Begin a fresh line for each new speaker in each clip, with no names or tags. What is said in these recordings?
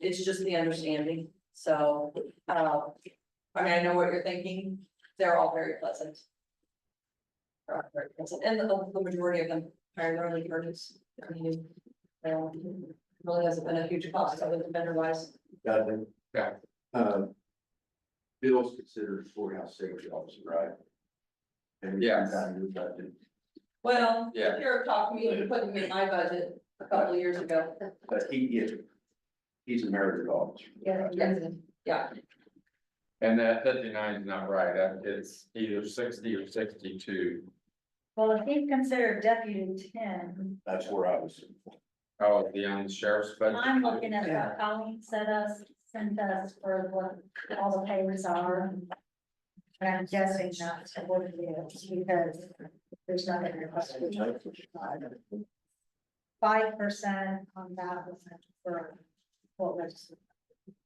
it's just the understanding, so, uh, I mean, I know what you're thinking, they're all very pleasant. They're all very pleasant, and the, the majority of them are early birds, I mean, um, really hasn't been a huge cost other than vendor wise.
Got it.
Got
Um, Bill's considered courthouse safety officer, right? And
Yes.
Well,
Yeah.
Eric talked me into putting me in my budget a couple of years ago.
But he is, he's a merited officer.
Yes, yeah,
And that fifty-nine is not right, Uh, it's either sixty or sixty-two.
Well, if he's considered deputy ten,
That's where I was.
Oh, the um, sheriff's budget.
I'm looking at what Colleen sent us, sent us for what all the papers are. And I'm guessing not to what it is, because there's nothing requested. Five percent on that was for what was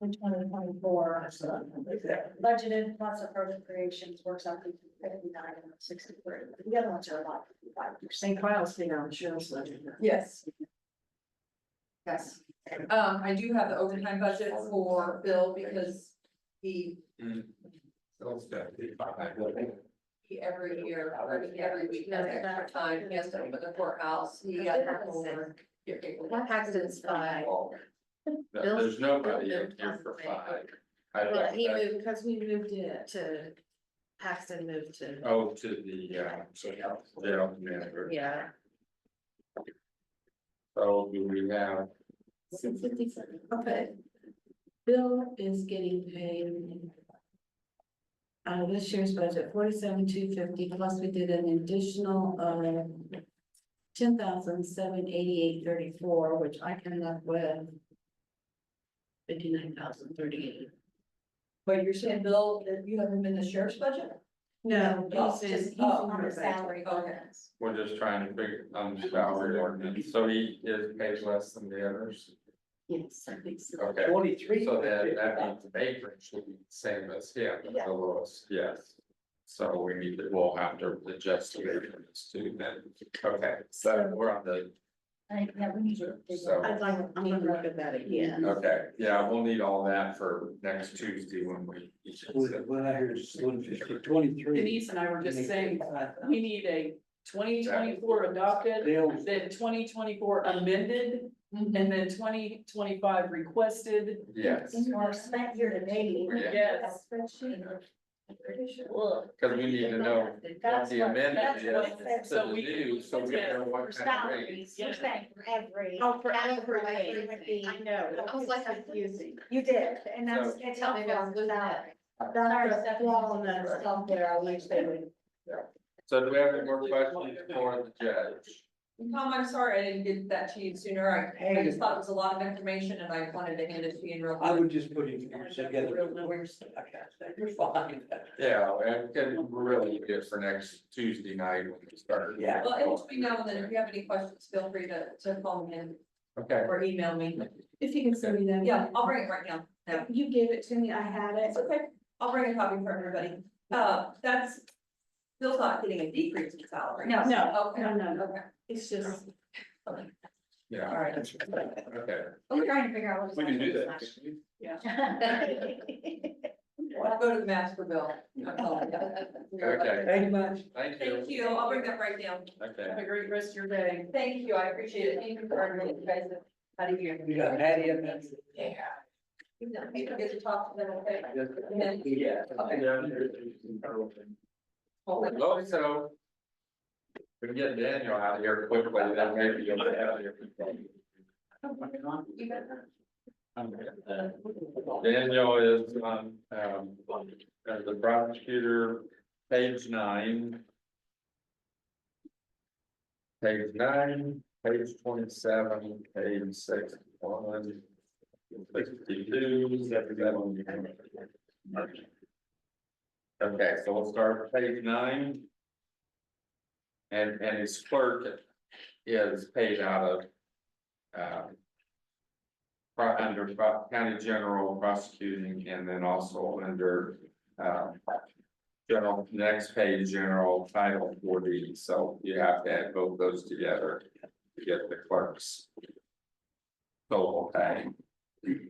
in twenty twenty-four. Budgeted plus appropriations works out to fifty-nine and sixty-three. The other ones are a lot, five percent.
St. Cloud's thing on the sheriff's ledger.
yes.
Yes.
Um, I do have the overtime budget for Bill because he,
So it's 55.
he every year, I mean, every week has extra time, he has to open the courthouse, he has to go over.
What happens by- Bill's-
There's nobody
Bill
in here for
doesn't
five.
make-
I
Well,
looked
he
at-
moved, because we moved it to, Paxton moved to,
Oh, to the, uh, jail commander.
yeah.
So do we have,
Six fifty-seven, okay. Bill is getting paid. Out of this year's budget, forty-seven, two fifty, plus we did an additional, uh. Ten thousand, seven, eighty-eight, thirty-four, which I come up with. Fifty-nine thousand, thirty-eight.
But you're saying, Bill, that you haven't been the sheriff's budget?
No,
Oh,
he's in, he's
just-
in
oh,
her
under
budget.
salary, okay.
we're just trying to figure, um, salary ordinance, so he is paid less than the others.
Yes, I think so.
Okay,
Twenty-three.
so that, that means Baker should be the same as him, the lowest, yes. So we need to, we'll have to adjust the Baker's too then, okay, so we're on the
I think, yeah, we need to.
So-
I'd like, I'm gonna look at that again.
Okay, yeah, we'll need all that for next Tuesday when we.
What I hear is one fifty, twenty-three.
Denise and I were just saying, we need a twenty twenty-four adopted,
Dale's
then twenty twenty-four amended, and then twenty twenty-five requested.
Yes,
Or spent year to date.
Yeah.
Yes.
Spreadsheet.
because we need to know what
That's
the
what-
amendment
that's what it
is to
says.
So
the
we-
do, so we
yeah,
know
For
what kind of rate.
salaries, you're saying for every.
Oh, for
category
everything.
would be-
I know. I was like, I'm confusing.
You did, and that's,
So-
it's
Tell me
helpful.
about
with that.
that.
That's our flaw in that stuff there, I wish they would.
So do we have any more questions for the judge?
Tom, I'm sorry, I didn't get that to you sooner, I, I just thought it was a lot of information and I wanted to hand it to you in real.
I
quick.
would just put it together. You're fine.
Yeah, and can really do it for next Tuesday night when we start.
Yeah.
Well, it will be known that if you have any questions, feel free to, to phone him
Okay,
or email me,
If you can send me that.
yeah, I'll bring it right now, no.
You gave it to me, I had it.
It's okay, I'll bring a copy for everybody. Uh, that's, Bill's not getting a decrease in salary.
No.
No,
Okay,
no, no,
okay,
it's just.
all
yeah,
right.
okay.
I'm trying to figure out what.
I'll go to the master bill. I'll call it.
Okay,
Thank you much.
thank you.
Thank you, I'll bring that right down.
Okay,
Have a great rest of your day.
Thank you, I appreciate it. Thank you for everything you guys have had of you.
You got Patty in there?
Yeah. You know, you get to talk to them, okay?
Yeah.
well, so. We can get Daniel out of here quickly, then maybe you'll get out of here.
You got that?
Uh,
Daniel is on, um, as the prosecutor, page nine. Page nine, page twenty-seven, page sixty-one. Sixty-two, seventy-seven. Okay, so we'll start with page nine. And, and his clerk is paid out of. Um, pro- under pro- county general prosecuting and then also under, uh. General, next page, general title forty, so you have to add both those together to get the clerks. Total pay.